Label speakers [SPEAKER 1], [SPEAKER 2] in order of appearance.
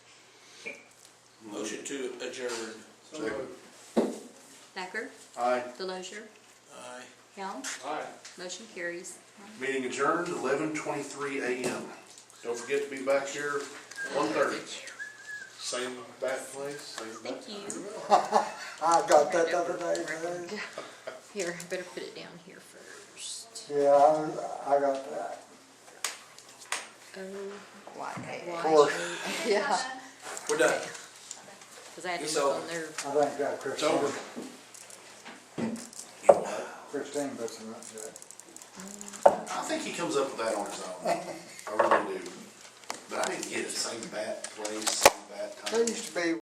[SPEAKER 1] Motion to adjourn.
[SPEAKER 2] Second.
[SPEAKER 3] Thacker,
[SPEAKER 2] Aye.
[SPEAKER 3] Delosier,
[SPEAKER 1] Aye.
[SPEAKER 3] Helm,
[SPEAKER 2] Aye.
[SPEAKER 3] motion carries.
[SPEAKER 2] Meeting adjourned, eleven twenty-three AM. Don't forget to be back here one thirty. Same back place, same back.
[SPEAKER 3] Thank you.
[SPEAKER 4] I got that the other day, man.
[SPEAKER 3] Here, I better put it down here first.
[SPEAKER 4] Yeah, I, I got that.
[SPEAKER 3] Oh,
[SPEAKER 4] Of
[SPEAKER 3] why?
[SPEAKER 4] course,
[SPEAKER 3] Yeah,
[SPEAKER 1] We're done.
[SPEAKER 3] because I had to
[SPEAKER 1] It's
[SPEAKER 3] look
[SPEAKER 1] over.
[SPEAKER 3] on there.
[SPEAKER 4] I think that
[SPEAKER 2] It's over.
[SPEAKER 4] Christine, Christine puts them up there.
[SPEAKER 2] I think he comes up with that on his own. I really do. But I didn't get it, same bat place, same bat time.
[SPEAKER 4] There used to be